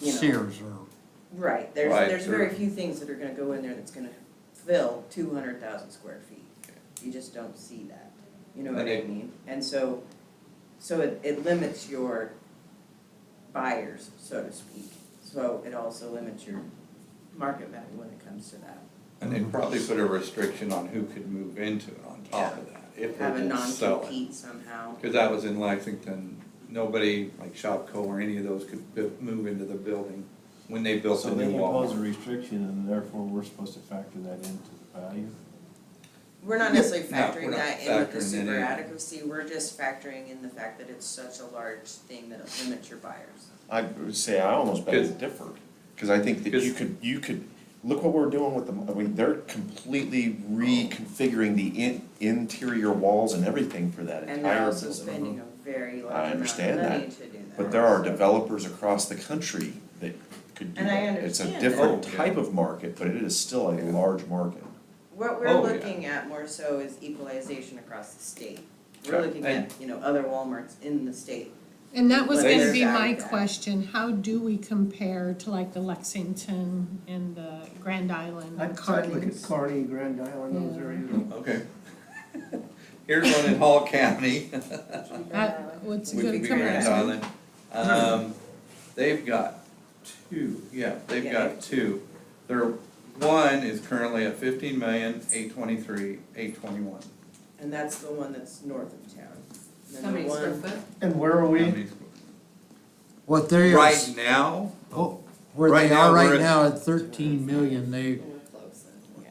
you know. Sears or, Right, there's, Right, there's very sure. few things that are gonna go in there that's gonna fill two hundred thousand square feet. You just don't see that, you know what I And it- mean? And so, so it, it limits your buyers, so to speak. So it also limits your market value when it comes to that. And they'd probably put a restriction on who could move into it on top of that, if they Have a didn't sell it. non-compete somehow. Cause that was in Lexington, nobody like Shopco or any of those could bu- move into the building when they built So the they new impose a Walmart. restriction and therefore we're supposed to factor that into the value? We're not necessarily No, we're factoring not that in with the factoring that in. super adequacy, we're just factoring in the fact that it's such a large thing that it limits your buyers. I would say I almost bet it's Good. different, cause I think that you Good. could, you could, look what we're doing with the, I mean, they're completely reconfiguring the in, interior walls and everything for that entire And building. they're also spending a very I large amount of understand that, money to do that. But there are developers across the country that could do And I that. understand It's a that. different Oh, yeah. type of market, but it is still a large market. What Oh, we're yeah. looking at more so is equalization across the state. We're Okay. looking at, you know, other Walmarts in the state. And that was They- gonna be my Exactly. question, how do we compare to like the Lexington and the Grand Island and I'd I'd look at Cardinals? Carney, Grand Island, those areas. Okay. Here's one in Hall County. Uh, That, what's a We could good be Grand comparison? Island. Um, they've got two, yeah, they've got two. Their, one is currently at fifteen million, eight twenty-three, eight twenty-one. And that's the one that's north of town. And then How the many square one- foot? And where are we? what they are, Right now, oh, where right they now are we're right at- now at thirteen million, they, Yeah.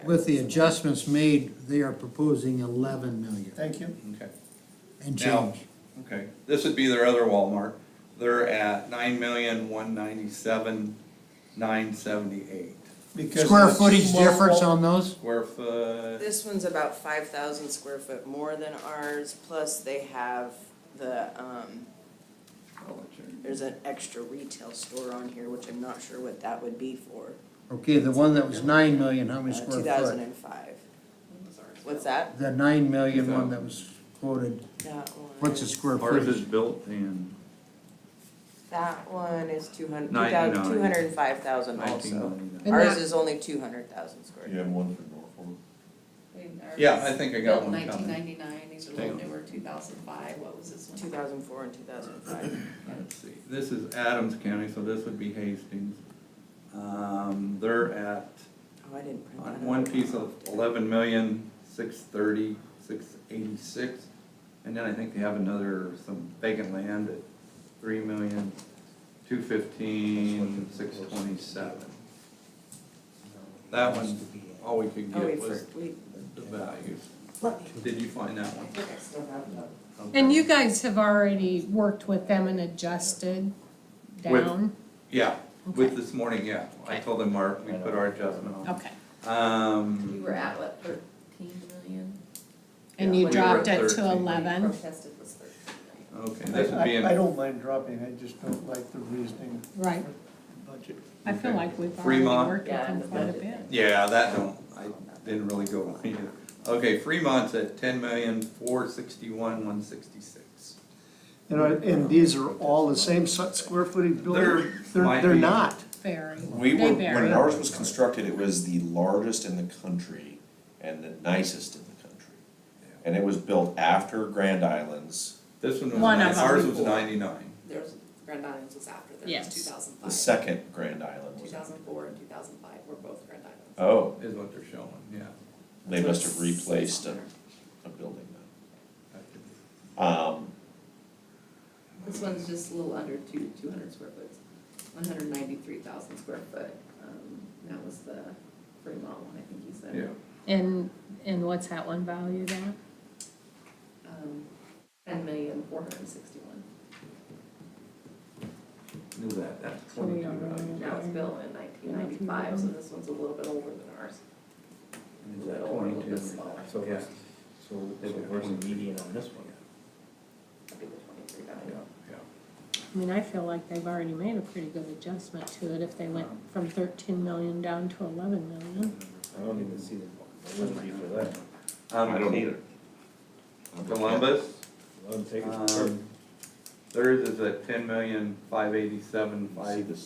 with the adjustments made, they are proposing eleven million Thank you. Mm-hmm. okay, and Now- change. okay, this would be their other Walmart. They're at nine million, one ninety-seven, nine seventy-eight. Because Square it's footage small difference wall- on those? Square foot, This one's about five thousand square foot more than ours, plus they have the, um, there's an extra retail store on here, which I'm not sure what that would be for. Uh, Okay, the one that was nine million, how Uh, many Two square thousand foot? and five. What's that? The nine million one that was quoted, That one. what's the square ours is footage? built in That one is two hundred, two Ninety-nine. thousand, two hundred and five thousand nineteen also. ninety-nine. And Ours that- is only two hundred thousand square. You have one for Norfolk? Yeah, I think I got one Nineteen coming. ninety-nine, these are a little Hang on. newer, two thousand five, what was this one? Two thousand four and two thousand five. Let's see, this is Adams County, so this would be Hastings. Um, they're at, Oh, I didn't print that. on out. one piece of eleven million, six thirty, six eighty-six. And then I think they have another, some vacant land at three million, two fifteen, six twenty-seven. That one, all we could Oh, get wait, was for, wait. the values. Let me- Did you find that one? I think I still have that. Okay. And you guys have already worked with them and adjusted With- down? Yeah, Okay. with this morning, yeah. I told them our, we put our adjustment on. Okay, Um. We were at what, thirteen million? and Yeah, you we were at dropped it to 13. eleven, Protested was thirteen Okay, I, this would be I- I in don't mind dropping, I just don't like the reasoning right, budget. I feel Okay. like we've already Fremont? worked with them quite a bit. Yeah, that don't, I didn't really go on either. Okay, Fremont's at ten million, four sixty-one, one sixty-six. You know, and these are all the same si- square footage buildings. There might They're, they're be- not. Very, We they were, when vary. ours was constructed, it was the largest in the country and the nicest in the country. And it was built after Grand Islands, This one was, One of nine- ours them. was ninety-nine. There's, Grand Islands was after, there was Yes. two thousand the five. second Grand Island Two was. thousand four and two thousand five were both Grand Islands. Oh, Is what they're showing, yeah. they must have replaced a, a building then. Um, This one's just a little under two, two hundred square foot, one hundred ninety-three thousand square foot, um, that was the Fremont one, I think you said. Yeah, And, and what's that one valued at? Um, ten million, four hundred and sixty-one, knew that, that's So we twenty-two are- million. that was built in nineteen ninety-five, so this one's a little bit older than ours. Is that twenty-two? So, yeah. So where's the median on this one? That'd be the twenty-three Yeah, value. yeah. I mean, I feel like they've already made a pretty good adjustment to it if they went from thirteen million down to eleven million. I don't even see the, I wouldn't be for that. Um, I don't either. Columbus, Let 'em take it. um, theirs is at ten million, five eighty-seven, See five this